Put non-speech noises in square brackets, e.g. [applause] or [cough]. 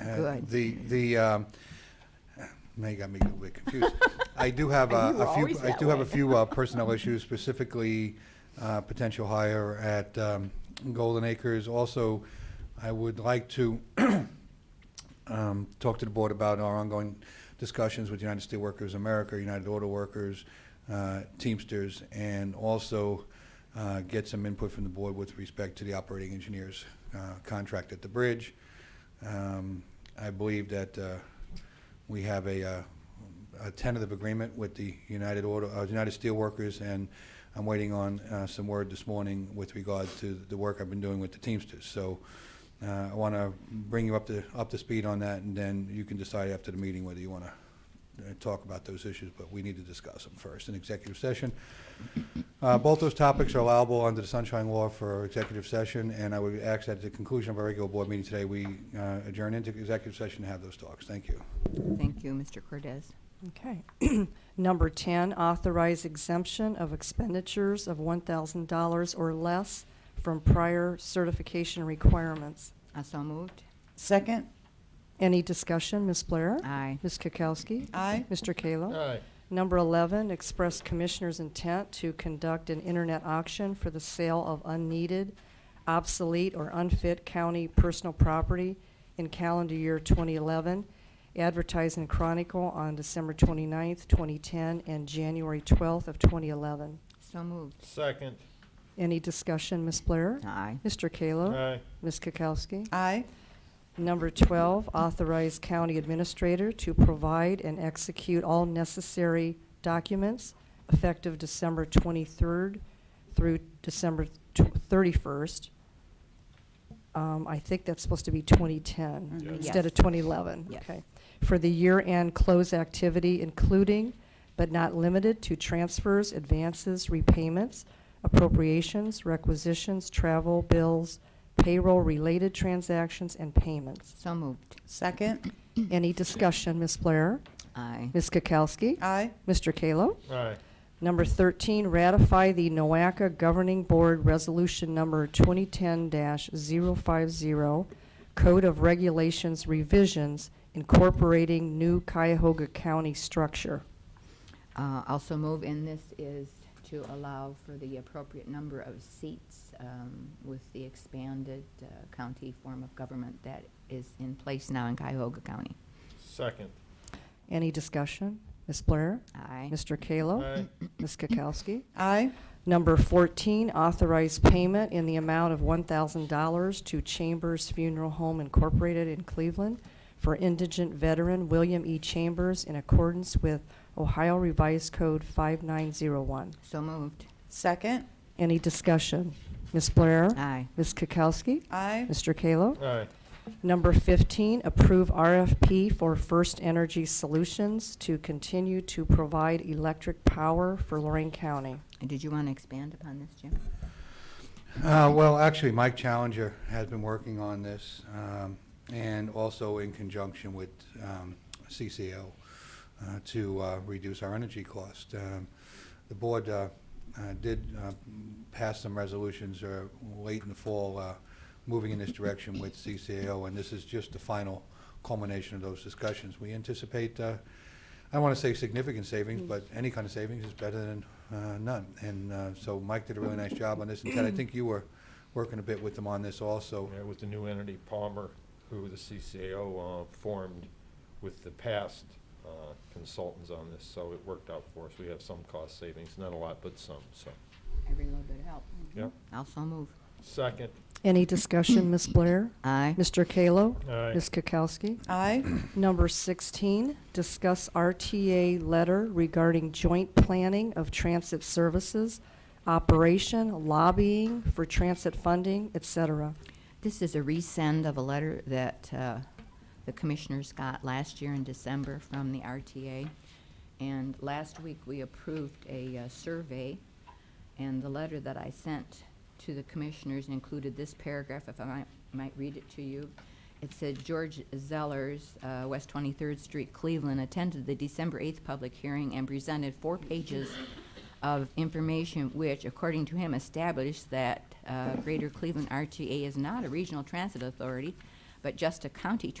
Uh, Good. The, the, um, now you got me a little bit [laughs] confused. I do have You uh, were a few, always I that do have a way. few uh, personnel issues, specifically uh, potential hire at um, Golden Acres. Also, I would like to [clears throat] um, talk to the board about our ongoing discussions with United Steelworkers America, United Auto Workers, uh, Teamsters, and also uh, get some input from the board with respect to the operating engineers uh, contract at the bridge. Um, I believe that uh, we have a uh, a tentative agreement with the United Auto, uh, United Steelworkers, and I'm waiting on uh, some word this morning with regard to the work I've been doing with the Teamsters. So uh, I want to bring you up to, up to speed on that, and then you can decide after the meeting whether you want to talk about those issues, but we need to discuss them first in executive session. Uh, Both those topics are allowable under the Sunshine Law for executive session, and I would ask that at the conclusion of our regular board meeting today, we uh, adjourn into executive session to have those talks. Thank you. Thank you, Mr. Cortez. Okay. [clears throat] Number 10, authorize exemption of expenditures of $1,000 or less from prior certification requirements. I so moved. Second? Any discussion, Ms. Blair? Aye. Ms. Kukowski? Aye. Mr. Kallo? Aye. Number 11, express commissioner's intent to conduct an internet auction for the sale of unneeded, obsolete, or unfit county personal property in calendar year 2011, advertised in Chronicle on December 29th, 2010, and January 12th of 2011. So moved. Second. Any discussion, Ms. Blair? Aye. Mr. Kallo? Aye. Ms. Kukowski? Aye. Number 12, authorize county administrator to provide and execute all necessary documents effective December 23rd through December tw- 31st. Um, I think that's supposed to be 2010 Yes. instead of Mm-hmm. Yes. 2011. Yes. Okay. For the year-end close activity, including but not limited to transfers, advances, repayments, appropriations, requisitions, travel, bills, payroll-related transactions, and payments. So moved. Second? Any discussion, Ms. Blair? Aye. Ms. Kukowski? Aye. Mr. Kallo? Aye. Number 13, ratify the NOACA Governing Board Resolution Number 2010-050, Code of Regulations revisions incorporating new Cuyahoga County structure. Uh, Also move, and this is to allow for the appropriate number of seats um, with the expanded uh, county form of government that is in place now in Cuyahoga County. Second. Any discussion? Ms. Blair? Aye. Mr. Kallo? Aye. Ms. Kukowski? Aye. Number 14, authorize payment in the amount of $1,000 to Chambers Funeral Home Incorporated in Cleveland for indigent veteran William E. Chambers in accordance with Ohio Revised Code 5901. So moved. Second? Any discussion? Ms. Blair? Aye. Ms. Kukowski? Aye. Mr. Kallo? Aye. Number 15, approve RFP for First Energy Solutions to continue to provide electric power for Lorraine County. And Did you want to expand upon this, Jim? Uh, Well, actually, Mike Challenger has been working on this, um, and also in conjunction with um, CCO, uh, to uh, reduce our energy cost. Um, The board uh, uh, did uh, pass some resolutions uh, late in the fall, uh, moving in this direction with CCAO, and this is just the final culmination of those discussions. We anticipate, uh, I don't want to say significant savings, but any kind of savings is better than uh, none. And uh, so Mike did a really nice job on this, and Ted, I think you were working a bit with them on this also. Yeah, with the new entity Palmer, who the CCAO uh, formed with the past uh, consultants on this, so it worked out for us. We have some cost savings, not a lot, but some, so. Every little bit help. Yep. Also move. Second. Any discussion, Ms. Blair? Aye. Mr. Kallo? Aye. Ms. Kukowski? Aye. Number 16, discuss RTA letter regarding joint planning of transit services, operation, lobbying for transit funding, et cetera. This is a resend of a letter that uh, the commissioners got last year in December from the RTA. And last week, we approved a uh, survey, and the letter that I sent to the commissioners included this paragraph, if I might- might read it to you. It said, "George Zellers, uh, West 23rd Street, Cleveland, attended the December 8th public hearing and presented four pages of information which, according to him, established that uh, Greater Cleveland RTA is not a regional transit authority, but just a county